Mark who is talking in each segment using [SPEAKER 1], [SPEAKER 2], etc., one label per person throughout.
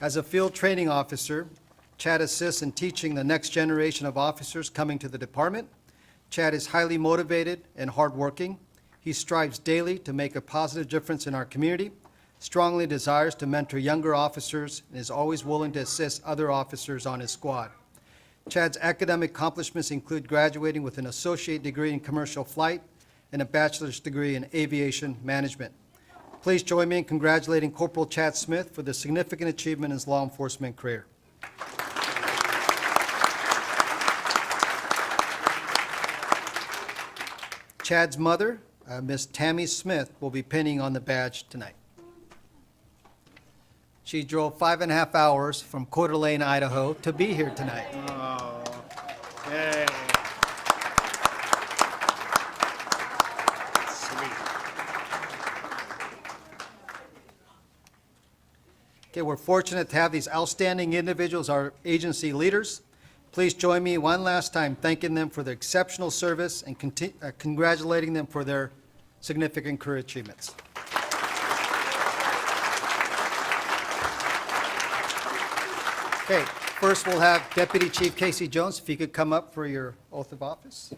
[SPEAKER 1] As a field training officer, Chad assists in teaching the next generation of officers coming to the department. Chad is highly motivated and hardworking. He strives daily to make a positive difference in our community, strongly desires to mentor younger officers, and is always willing to assist other officers on his squad. Chad's academic accomplishments include graduating with an associate degree in commercial flight and a bachelor's degree in aviation management. Please join me in congratulating Corporal Chad Smith for the significant achievement in his law enforcement career. Chad's mother, uh, Miss Tammy Smith, will be pinning on the badge tonight. She drove five and a half hours from Coeur d'Alene, Idaho, to be here tonight.
[SPEAKER 2] Yay. Sweet.
[SPEAKER 1] Okay, we're fortunate to have these outstanding individuals, our agency leaders. Please join me one last time thanking them for their exceptional service and conti- uh, congratulating them for their significant career achievements. Okay, first we'll have Deputy Chief Casey Jones, if you could come up for your oath of office.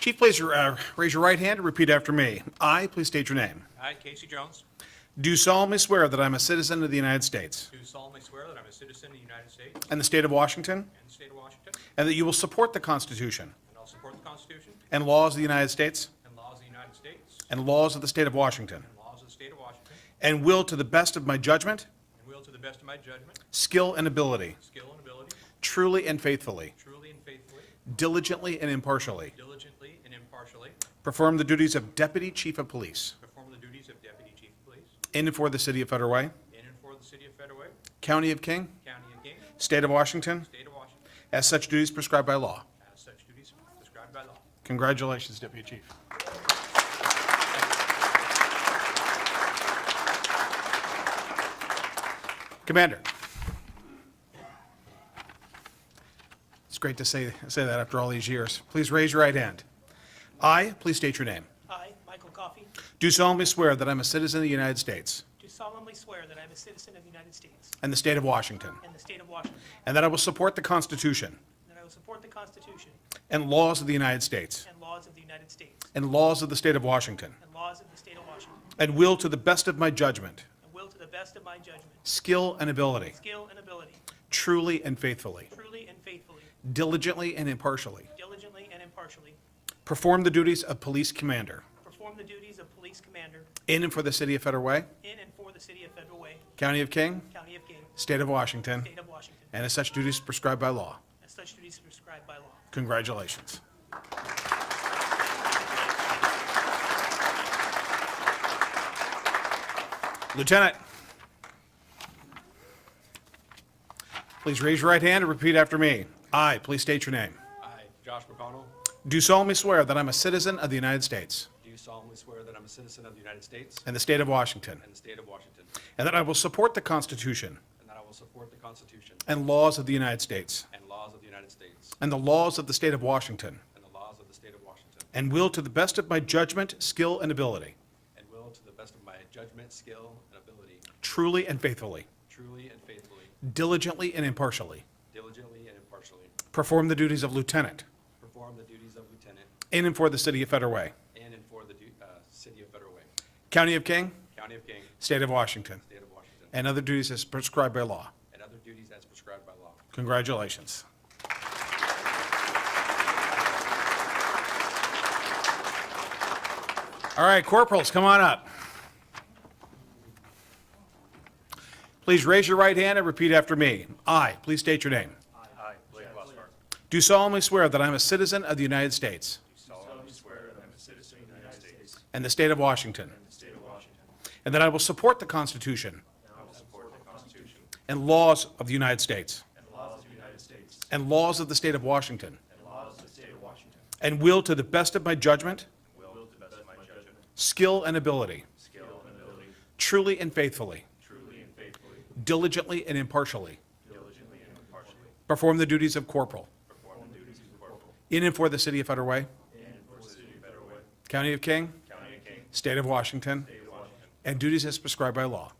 [SPEAKER 2] Chief, please uh, raise your right hand and repeat after me. I, please state your name.
[SPEAKER 3] I, Casey Jones,
[SPEAKER 2] Do solemnly swear that I'm a citizen of the United States
[SPEAKER 3] do solemnly swear that I'm a citizen of the United States
[SPEAKER 2] and the state of Washington,
[SPEAKER 3] and the state of Washington,
[SPEAKER 2] and that you will support the Constitution
[SPEAKER 3] and I'll support the Constitution
[SPEAKER 2] and laws of the United States
[SPEAKER 3] and laws of the United States
[SPEAKER 2] and laws of the state of Washington,
[SPEAKER 3] and laws of the state of Washington,
[SPEAKER 2] and will, to the best of my judgment,
[SPEAKER 3] and will to the best of my judgment,
[SPEAKER 2] skill, and ability,
[SPEAKER 3] skill, and ability,
[SPEAKER 2] truly and faithfully,
[SPEAKER 3] truly and faithfully,
[SPEAKER 2] diligently and impartially,
[SPEAKER 3] diligently, and impartially,
[SPEAKER 2] perform the duties of Deputy Chief of Police
[SPEAKER 3] perform the duties of Deputy Chief of Police
[SPEAKER 2] in and for the city of Federal Way,
[SPEAKER 3] in and for the city of Federway,
[SPEAKER 2] County of King,
[SPEAKER 3] county of King,
[SPEAKER 2] State of Washington,
[SPEAKER 3] state of Washington,
[SPEAKER 2] as such duties prescribed by law.
[SPEAKER 3] as such duties prescribed by law.
[SPEAKER 2] Congratulations, Deputy Chief. Commander. It's great to say, say that after all these years. Please raise your right hand. I, please state your name.
[SPEAKER 4] I, Michael Coffey,
[SPEAKER 2] Do solemnly swear that I'm a citizen of the United States
[SPEAKER 4] do solemnly swear that I am a citizen of the United States
[SPEAKER 2] and the state of Washington,
[SPEAKER 4] and the state of Washington,
[SPEAKER 2] and that I will support the Constitution
[SPEAKER 4] and that I will support the Constitution
[SPEAKER 2] and laws of the United States
[SPEAKER 4] and laws of the United States
[SPEAKER 2] and laws of the state of Washington,
[SPEAKER 4] and laws of the state of Washington,
[SPEAKER 2] and will, to the best of my judgment,
[SPEAKER 4] and will to the best of my judgment,
[SPEAKER 2] skill, and ability,
[SPEAKER 4] skill, and ability,
[SPEAKER 2] truly and faithfully,
[SPEAKER 4] truly and faithfully,
[SPEAKER 2] diligently and impartially,
[SPEAKER 4] diligently and impartially,
[SPEAKER 2] perform the duties of police commander
[SPEAKER 4] perform the duties of police commander
[SPEAKER 2] in and for the city of Federal Way,
[SPEAKER 4] in and for the city of Federal Way,
[SPEAKER 2] County of King,
[SPEAKER 4] County of King,
[SPEAKER 2] State of Washington,
[SPEAKER 4] state of Washington,
[SPEAKER 2] and as such duties prescribed by law.
[SPEAKER 4] as such duties prescribed by law.
[SPEAKER 2] Congratulations. Lieutenant. Please raise your right hand and repeat after me. I, please state your name.
[SPEAKER 3] I, Josh McConnell,
[SPEAKER 2] Do solemnly swear that I'm a citizen of the United States
[SPEAKER 3] do solemnly swear that I'm a citizen of the United States
[SPEAKER 2] and the state of Washington,
[SPEAKER 3] and the state of Washington,
[SPEAKER 2] and that I will support the Constitution
[SPEAKER 3] and that I will support the Constitution
[SPEAKER 2] and laws of the United States
[SPEAKER 3] and laws of the United States
[SPEAKER 2] and the laws of the state of Washington,
[SPEAKER 3] and the laws of the state of Washington,
[SPEAKER 2] and will, to the best of my judgment, skill, and ability,
[SPEAKER 3] And will, to the best of my judgment, skill, and ability,
[SPEAKER 2] truly and faithfully,
[SPEAKER 3] truly and faithfully,
[SPEAKER 2] diligently and impartially,
[SPEAKER 3] diligently and impartially,
[SPEAKER 2] perform the duties of lieutenant
[SPEAKER 3] perform the duties of lieutenant
[SPEAKER 2] in and for the city of Federal Way,
[SPEAKER 3] in and for the du- uh, city of Federal Way,
[SPEAKER 2] County of King,
[SPEAKER 3] County of King,
[SPEAKER 2] State of Washington,
[SPEAKER 3] State of Washington,
[SPEAKER 2] and other duties as prescribed by law.
[SPEAKER 3] and other duties as prescribed by law.
[SPEAKER 2] Congratulations. All right, corporals, come on up. Please raise your right hand and repeat after me. I, please state your name.
[SPEAKER 3] I, Blake Glassberg,
[SPEAKER 2] Do solemnly swear that I am a citizen of the United States
[SPEAKER 3] solemnly swear that I'm a citizen of the United States
[SPEAKER 2] and the state of Washington,
[SPEAKER 3] and the state of Washington,
[SPEAKER 2] and that I will support the Constitution
[SPEAKER 3] and I will support the Constitution
[SPEAKER 2] and laws of the United States
[SPEAKER 3] and laws of the United States
[SPEAKER 2] and laws of the state of Washington,
[SPEAKER 3] and laws of the state of Washington,
[SPEAKER 2] and will, to the best of my judgment,
[SPEAKER 3] and will, to the best of my judgment,
[SPEAKER 2] skill, and ability,
[SPEAKER 3] skill, and ability,
[SPEAKER 2] truly and faithfully,
[SPEAKER 3] truly and faithfully,
[SPEAKER 2] diligently and impartially,
[SPEAKER 3] diligently and impartially,
[SPEAKER 2] perform the duties of corporal
[SPEAKER 3] perform the duties of corporal
[SPEAKER 2] in and for the city of Federal Way,
[SPEAKER 3] in and for the city of Federal Way,
[SPEAKER 2] County of King,
[SPEAKER 3] County of King,
[SPEAKER 2] State of Washington,
[SPEAKER 3] State of Washington,
[SPEAKER 2] and duties as prescribed by law.